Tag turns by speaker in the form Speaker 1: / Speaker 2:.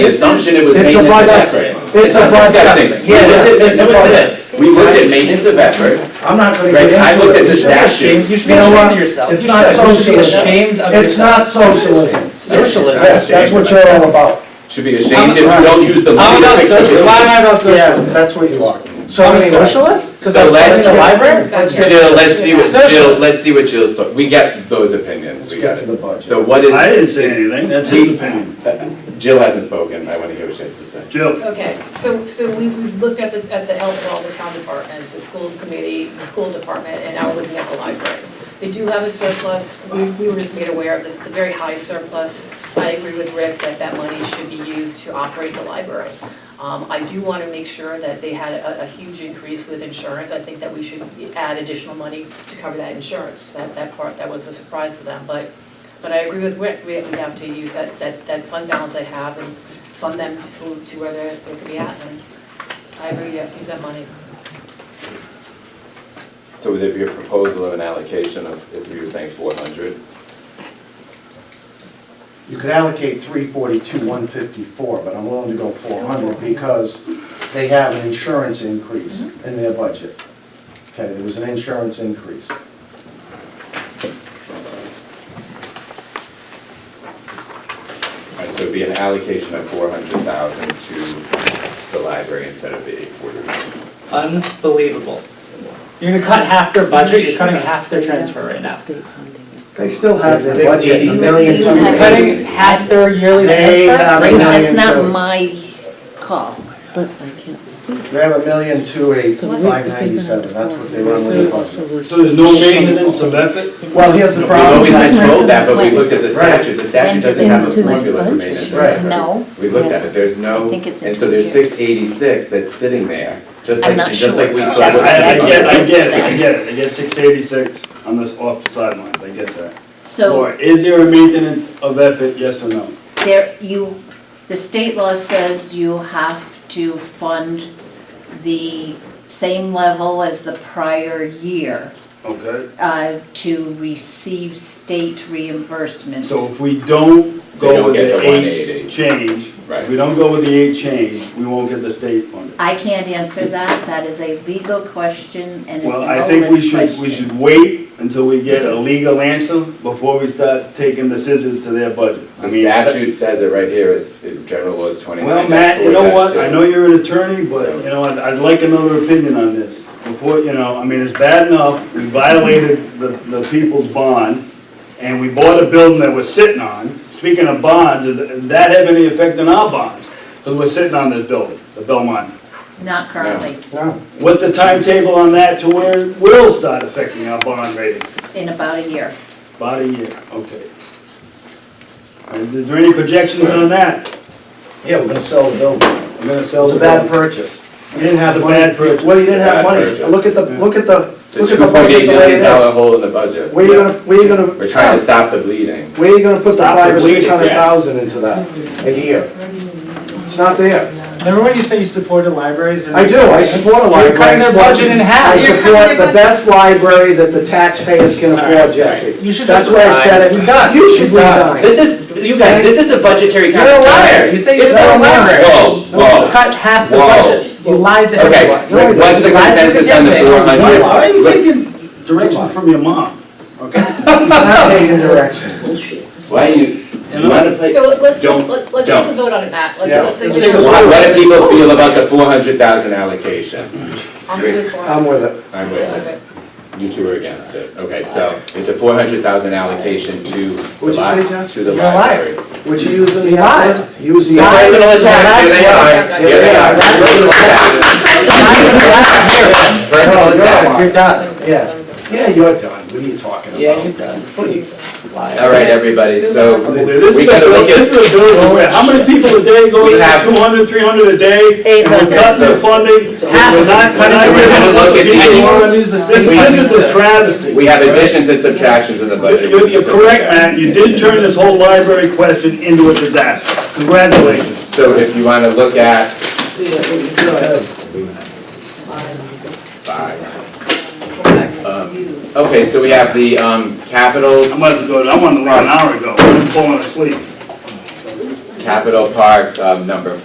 Speaker 1: The
Speaker 2: This
Speaker 1: assumption it was
Speaker 3: It's a
Speaker 1: maintenance of
Speaker 3: budget.
Speaker 1: effort.
Speaker 3: It's a
Speaker 1: That's
Speaker 3: budget.
Speaker 1: disgusting. We
Speaker 3: Yeah,
Speaker 1: looked
Speaker 3: it's-
Speaker 1: at-
Speaker 3: it's a
Speaker 1: we looked at-
Speaker 3: budget.
Speaker 1: We looked at maintenance of effort,
Speaker 3: I'm not gonna get
Speaker 1: Greg,
Speaker 3: into it.
Speaker 1: I looked at the statute.
Speaker 4: You should be
Speaker 3: You know
Speaker 4: ashamed
Speaker 3: what?
Speaker 4: of yourself.
Speaker 3: It's
Speaker 4: You
Speaker 3: not
Speaker 4: should. You should be
Speaker 3: socialism.
Speaker 4: ashamed of
Speaker 3: It's
Speaker 4: yourself.
Speaker 3: not socialism.
Speaker 4: Socialism.
Speaker 3: Yes, that's what you're all about.
Speaker 1: Should be ashamed if we don't use the
Speaker 4: I'm
Speaker 1: money to
Speaker 4: about
Speaker 1: fix the
Speaker 4: social, why am
Speaker 1: building.
Speaker 4: I about
Speaker 3: Yeah,
Speaker 4: socialism?
Speaker 3: that's what you are. So
Speaker 4: I'm a
Speaker 3: anyway,
Speaker 4: socialist?
Speaker 1: So let's-
Speaker 3: the library?
Speaker 5: Let's
Speaker 3: get-
Speaker 1: Jill, let's see what, Jill,
Speaker 4: Socialist.
Speaker 1: let's see what Jill's, thought. we get those opinions,
Speaker 3: Let's
Speaker 1: we
Speaker 3: get
Speaker 1: got
Speaker 3: to the
Speaker 1: it.
Speaker 3: budget.
Speaker 1: So what is? Uh,
Speaker 2: I didn't say anything, that's his opinion.
Speaker 1: Jill hasn't spoken, I wanna hear what she has to say.
Speaker 2: Jill,
Speaker 5: Okay, so, so we, we've looked at the, at the health of all the town departments, the school committee, the school department, and now we're looking at the library. They do have a surplus, we, we were just made aware of this, it's a very high surplus. I agree with Rick that that money should be used to operate the library. Um, I do wanna make sure that they had a, a huge increase with insurance, I think that we should add additional money to cover that insurance, that, that part, that was a surprise for them, but, but I agree with Rick, we, we have to use that, that, that fund balance they have and fund them to, to where they're, they could be at, and I agree, you have to use that money.
Speaker 1: So would there be a proposal of an allocation of, as we were saying, four hundred?
Speaker 3: You could allocate three forty-two, one fifty-four, but I'm willing to go four hundred because they have an insurance increase in their budget. Okay, there was an insurance increase.
Speaker 1: Alright, so it'd be an allocation of four hundred thousand to the library instead of the eight forty.
Speaker 4: Unbelievable. You're gonna cut half their budget, you're cutting half their transfer right now.
Speaker 3: They still have their budget, a
Speaker 1: Sixty.
Speaker 3: million two.
Speaker 4: You're cutting half their yearly
Speaker 3: They have
Speaker 4: transfer
Speaker 3: a
Speaker 4: right now.
Speaker 3: million
Speaker 6: That's not
Speaker 3: two.
Speaker 6: my call, but I can't speak.
Speaker 3: They have a million two eight,
Speaker 6: So
Speaker 3: five ninety-seven, that's what they run with the budget.
Speaker 6: So
Speaker 7: So there's no maintenance of effort?
Speaker 3: Well, here's the
Speaker 1: We've
Speaker 3: problem.
Speaker 1: always been
Speaker 6: Right.
Speaker 1: told that, but we looked at the
Speaker 3: Right.
Speaker 1: statute, the statute doesn't have a formula for maintenance. of
Speaker 3: Right.
Speaker 1: effort.
Speaker 6: No.
Speaker 1: We looked at it, there's no,
Speaker 6: I think it's in
Speaker 1: and so
Speaker 6: two
Speaker 1: there's
Speaker 6: years.
Speaker 1: six eighty-six that's sitting there, just
Speaker 6: I'm
Speaker 1: like,
Speaker 6: not
Speaker 1: and just
Speaker 6: sure.
Speaker 1: like we saw.
Speaker 2: I,
Speaker 6: That's
Speaker 1: with
Speaker 6: why
Speaker 2: I
Speaker 1: the
Speaker 2: I get, I
Speaker 1: budget.
Speaker 2: get it, I get it, I get six eighty-six on this off sideline, I get that. Or
Speaker 6: So
Speaker 2: is there a maintenance of effort, yes or no?
Speaker 6: there, you, the state law says you have to fund the same level as the prior year
Speaker 2: Okay,
Speaker 6: uh, to receive state reimbursement.
Speaker 2: so if we don't
Speaker 1: They don't
Speaker 2: go with
Speaker 1: get
Speaker 2: the
Speaker 1: the
Speaker 2: eight
Speaker 1: 188.
Speaker 2: change,
Speaker 1: Right.
Speaker 2: if we don't go with the eight change, we won't get the state funded.
Speaker 6: I can't answer that, that is a legal question and it's an
Speaker 2: Well, I think we
Speaker 6: onerous
Speaker 2: should, we
Speaker 6: question.
Speaker 2: should wait until we get a legal answer before we start taking the scissors to their budget. I
Speaker 1: The
Speaker 2: mean,
Speaker 1: statute says it right here, is, it- general law is twenty-nine
Speaker 2: Well, Matt, you know what, I know you're an attorney,
Speaker 1: So-
Speaker 2: but, you know, I'd, I'd like another opinion on this. Before, you know, I mean, it's bad enough, we violated the, the people's bond, and we bought a building that we're sitting on. Speaking of bonds, is, does that have any effect on our bonds? Because we're sitting on this building, the Belmont.
Speaker 6: Not currently,
Speaker 3: No,
Speaker 2: What's the timetable on that to where it will start affecting our bond rating?
Speaker 6: in about a year.
Speaker 2: About a year, okay. And Is there any projections on that?
Speaker 3: yeah, we're gonna sell the building.
Speaker 2: I'm gonna
Speaker 3: It
Speaker 2: sell
Speaker 3: was
Speaker 2: the
Speaker 3: a bad
Speaker 2: building.
Speaker 3: purchase. You didn't have
Speaker 2: It's a
Speaker 3: money.
Speaker 2: bad purchase.
Speaker 3: Well, you didn't have
Speaker 1: Bad
Speaker 3: money.
Speaker 1: purchase.
Speaker 3: Look at the, look at the,
Speaker 1: The
Speaker 3: look
Speaker 1: two
Speaker 3: at the
Speaker 1: point
Speaker 3: budget
Speaker 1: eight
Speaker 3: the way
Speaker 1: million
Speaker 3: it
Speaker 1: dollar
Speaker 3: is.
Speaker 1: hole in the budget.
Speaker 3: Where you gonna, where you gonna?
Speaker 1: We're trying to stop the bleeding.
Speaker 3: Where you gonna put the
Speaker 2: Stop the
Speaker 3: five or
Speaker 2: bleeding,
Speaker 3: six hundred thousand into that a year? It's not there.
Speaker 4: Remember when you say you supported libraries? and-
Speaker 3: I do, I support a library.
Speaker 4: You're cutting
Speaker 3: I
Speaker 4: their
Speaker 3: support-
Speaker 4: budget in half.
Speaker 3: I
Speaker 4: You're
Speaker 3: support the best library that the taxpayers can afford, Jesse.
Speaker 4: You should
Speaker 3: That's
Speaker 4: just
Speaker 3: why I
Speaker 4: resign.
Speaker 3: said
Speaker 4: You're
Speaker 3: it.
Speaker 4: done.
Speaker 3: You should
Speaker 4: You're done.
Speaker 3: resign.
Speaker 1: This is, you guys, this is a budgetary
Speaker 4: You're a
Speaker 1: conversation.
Speaker 4: liar, you say you
Speaker 1: It's
Speaker 4: support
Speaker 1: not a
Speaker 4: libraries.
Speaker 1: Whoa, whoa.
Speaker 4: Cut half the
Speaker 1: Whoa.
Speaker 4: budget, you lied to
Speaker 1: Okay,
Speaker 4: everyone.
Speaker 3: No,
Speaker 1: what's the
Speaker 4: you lied to
Speaker 1: consensus on the
Speaker 4: everyone.
Speaker 1: four hundred?
Speaker 2: Why are you taking directions from your mom?
Speaker 3: I'm not taking directions.
Speaker 1: Why are you, you wanna play?
Speaker 5: So let's, just
Speaker 1: Don't-
Speaker 5: let- let's
Speaker 1: don't.
Speaker 5: take a vote on it, Matt, let's,
Speaker 3: Yeah.
Speaker 5: let's take a
Speaker 3: Let's take a
Speaker 5: vote.
Speaker 1: What what do people feel about the four hundred thousand allocation?
Speaker 5: I'm really for it.
Speaker 3: I'm with it.
Speaker 1: I'm with
Speaker 5: Okay.
Speaker 1: it, you two are against it. Okay, so it's a four hundred thousand allocation to the
Speaker 3: What'd you say,
Speaker 1: li-
Speaker 3: John?
Speaker 1: to the
Speaker 4: You're a liar.
Speaker 1: library.
Speaker 3: Would you use the
Speaker 4: Why?
Speaker 3: F word? Use the F word.
Speaker 1: Personal attacks, here they are, here they are. Personal attacks. Personal attacks.
Speaker 4: You're done.
Speaker 3: Yeah, yeah, you're done. What are you talking about?
Speaker 4: Yeah, you're done.
Speaker 3: Please.
Speaker 1: All right, everybody, so
Speaker 2: This
Speaker 1: we
Speaker 2: is a,
Speaker 1: gotta look
Speaker 2: this
Speaker 1: at,
Speaker 2: is a building where, how many people a day go
Speaker 1: We
Speaker 2: to
Speaker 1: have-
Speaker 2: 200, 300 a day?
Speaker 4: Eight
Speaker 2: And we're cutting the
Speaker 1: thousand.
Speaker 2: funding, and we're not cutting
Speaker 1: So we're gonna look at
Speaker 2: the
Speaker 1: the-
Speaker 4: You wanna
Speaker 2: people.
Speaker 4: lose the
Speaker 2: This
Speaker 4: six
Speaker 2: this is a
Speaker 4: budget.
Speaker 2: travesty.
Speaker 1: we have additions and subtractions in the budget.
Speaker 2: You're, you're correct, Matt, you did turn this whole library question into a disaster. Congratulations.
Speaker 1: So if you wanna look at five. Um, Okay, so we have the um, capital,
Speaker 2: I might as well go, I wanted to run an hour ago, I'm falling asleep.
Speaker 1: Capital Park, um, number